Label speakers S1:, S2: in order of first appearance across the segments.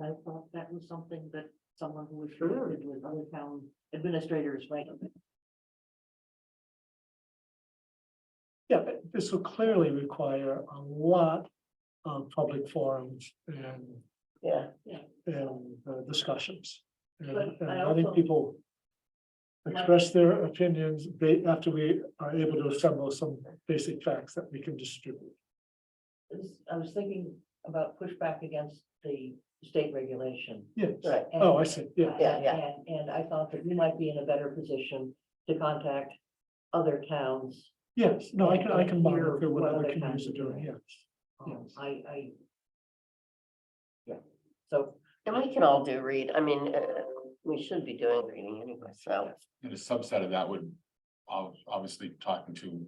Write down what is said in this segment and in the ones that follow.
S1: I thought that was something that someone who was familiar with other town administrators might have.
S2: Yeah, but this will clearly require a lot of public forums and,
S3: yeah,
S2: and uh, discussions. And
S1: But
S2: and
S1: I
S2: I think
S1: also-
S2: people express their opinions, they, after we are able to assemble some basic facts that we can distribute.
S1: I was thinking about pushback against the state regulation.
S2: Yes,
S3: right,
S2: oh, I see, yeah,
S3: Yeah, yeah.
S1: And, and I thought that you might be in a better position to contact other towns.
S2: yes, no, I can, I can
S1: And hear
S2: monitor what
S1: what
S2: other
S1: other kinds
S2: communities are
S1: of
S2: doing, yes.
S1: Um,
S2: Yes.
S1: I, I.
S3: Yeah.
S1: So,
S3: and we can all do read, I mean, uh, we should be doing reading anyway, so.
S4: And a subset of that would, ob- obviously talking to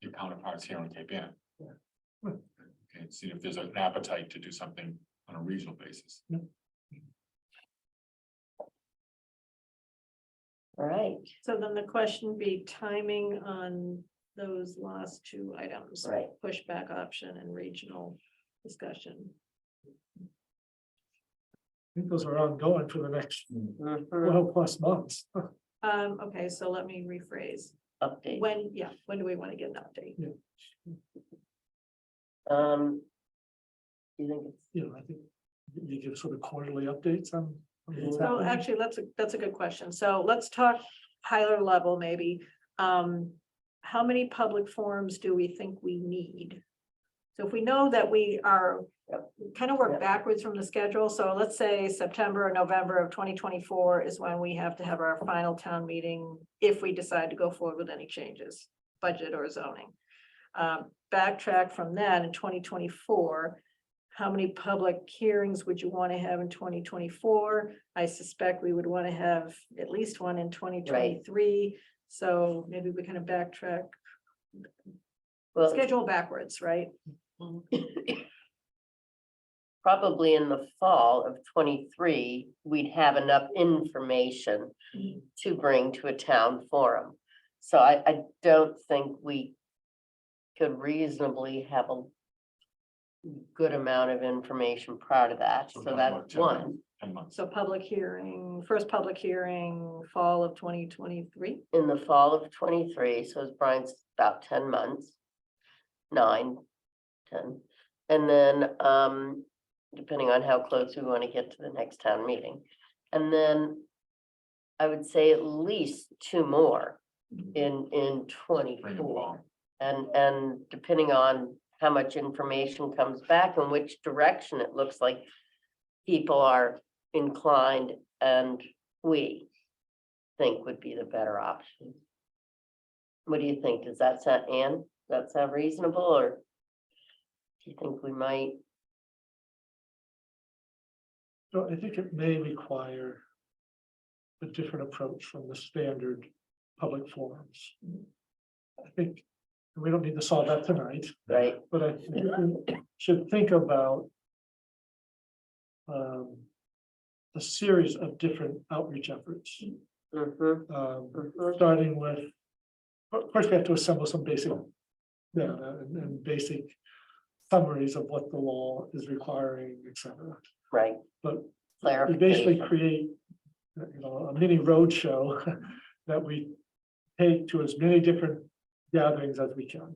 S4: your counterparts here on Cape Ann.
S2: Yeah.
S4: And see if there's an appetite to do something on a regional basis.
S3: All right,
S5: So then the question would be timing on those last two items,
S3: right,
S5: pushback option and regional discussion.
S2: I think those are ongoing for the next
S3: Mhm.
S2: twelve plus months. Uh,
S5: Um, okay, so let me rephrase.
S3: update.
S5: When, yeah, when do we want to get an update?
S3: Um. You think it's,
S2: you know, I think you give sort of quarterly updates on. on what's
S5: So
S2: happening.
S5: Oh, actually, that's a, that's a good question. So let's talk higher level maybe. Um, how many public forums do we think we need? So if we know that we are,
S3: Yep.
S5: kind of work
S3: Yep.
S5: backwards from the schedule, so let's say September or November of twenty twenty-four is when we have to have our final town meeting. If we decide to go forward with any changes, budget or zoning. Um, backtrack from that in twenty twenty-four. How many public hearings would you want to have in twenty twenty-four? I suspect we would want to have at least one in twenty twenty-three. So maybe we kind of backtrack,
S3: well, it's
S5: schedule backwards, right?
S3: probably in the fall of twenty-three, we'd have enough information
S5: Mhm.
S3: to bring to a town forum. So I, I don't think we could reasonably have a good amount of information prior to that,
S4: So
S3: so
S4: one more
S3: that's
S4: time.
S3: one,
S4: Ten months.
S5: So public hearing, first public hearing, fall of twenty twenty-three.
S3: in the fall of twenty-three, so as Brian's about ten months. Nine, ten, and then, um, depending on how close we wanna get to the next town meeting. And then I would say at least two more in, in
S4: Bring it
S3: twenty-four.
S4: along.
S3: And, and depending on how much information comes back and which direction it looks like people are inclined and we think would be the better option. What do you think? Does that sound, Ann, does that sound reasonable or do you think we might?
S2: So I think it may require a different approach from the standard public forums. I think, we don't need to solve that tonight,
S3: Right,
S2: but I think we should think about um, a series of different outreach efforts,
S3: mhm,
S2: um,
S3: mhm,
S2: starting with, of course, we have to assemble some basic data and, and basic summaries of what the law is requiring, et cetera.
S3: right.
S2: But We basically
S3: Clarification,
S2: create, uh, you know, a mini roadshow that we take to as many different gatherings as we can.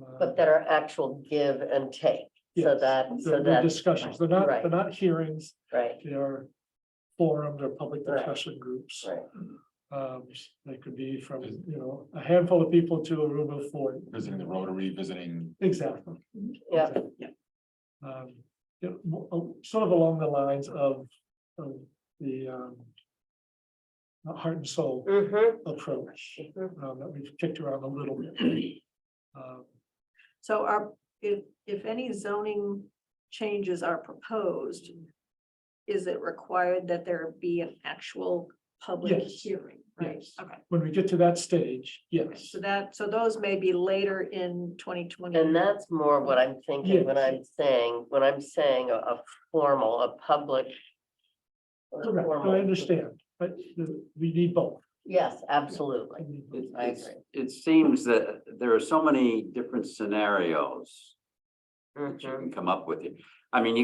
S2: Uh,
S3: but that are actual give and take. So
S2: yes,
S3: that,
S2: They're
S3: so
S2: they're
S3: that's
S2: discussions, they're not,
S3: right.
S2: they're not hearings,
S3: right,
S2: they're forums or public
S3: Right.
S2: discussion groups.
S3: right.
S2: Um, they could be from, you know, a handful of people to a room of forty,
S4: Visiting the Rotary, visiting,
S2: exactly.
S3: Yeah,
S2: um, you know, mo- uh, sort of along the lines of, of the, um, the heart and soul
S3: mhm,
S2: approach,
S3: mhm.
S2: um, that we've kicked around a little bit. Um,
S5: So our, if, if any zoning changes are proposed, is it required that there be an actual public
S2: Yes.
S5: hearing, right?
S2: Yes.
S5: Okay,
S2: When we get to that stage, yes,
S5: so that, so those may be later in twenty twenty.
S3: And that's more what I'm thinking, when
S2: Yes.
S3: I'm saying, when I'm saying a, a formal, a public. a
S2: correct,
S3: formal-
S2: I understand, but the- we need both.
S3: Yes, absolutely.
S2: We need both.
S6: It-
S3: I
S6: it's-
S3: agree.
S6: It seems that there are so many different scenarios that you
S3: Mhm.
S6: can come up with. I mean, you